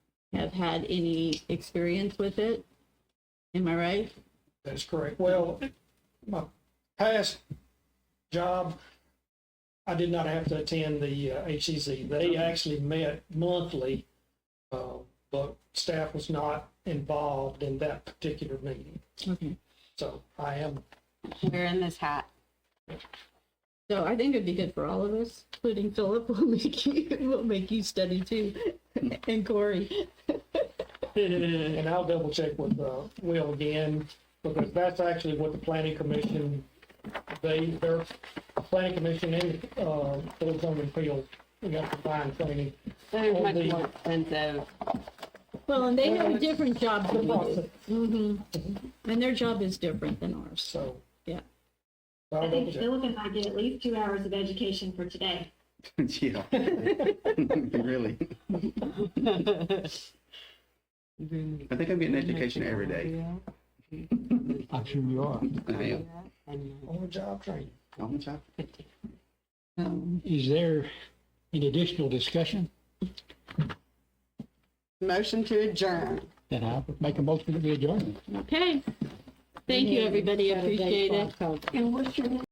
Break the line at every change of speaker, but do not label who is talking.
have had any experience with it. Am I right?
That's correct. Well, my past job, I did not have to attend the uh, HCC. They actually met monthly, uh, but staff was not involved in that particular meeting.
Okay.
So I am,
wearing this hat.
So I think it'd be good for all of us, including Philip. We'll make you, we'll make you study too, and Corey.
and I'll double check with uh, Will again, because that's actually what the planning commission, they, their planning commission and uh, Bill Zoning Appeals, we got combined training.
They're
Well,
much
the-
more expensive.
Well, and they have different jobs than we do, Mm-hmm.
So
and their job is different than ours. Yeah.
I'll
I
double
think
check.
Philip and I get at least two hours of education for today.
yeah, really. I think I'm getting education every day.
I'm sure you are.
I am.
On the job training.
On the job.
Um,
Is there any additional discussion?
Motion to adjourn.
Then I would make a motion to adjourn.
Okay. Thank you, everybody. Appreciate it.
Appreciate it.
And what's your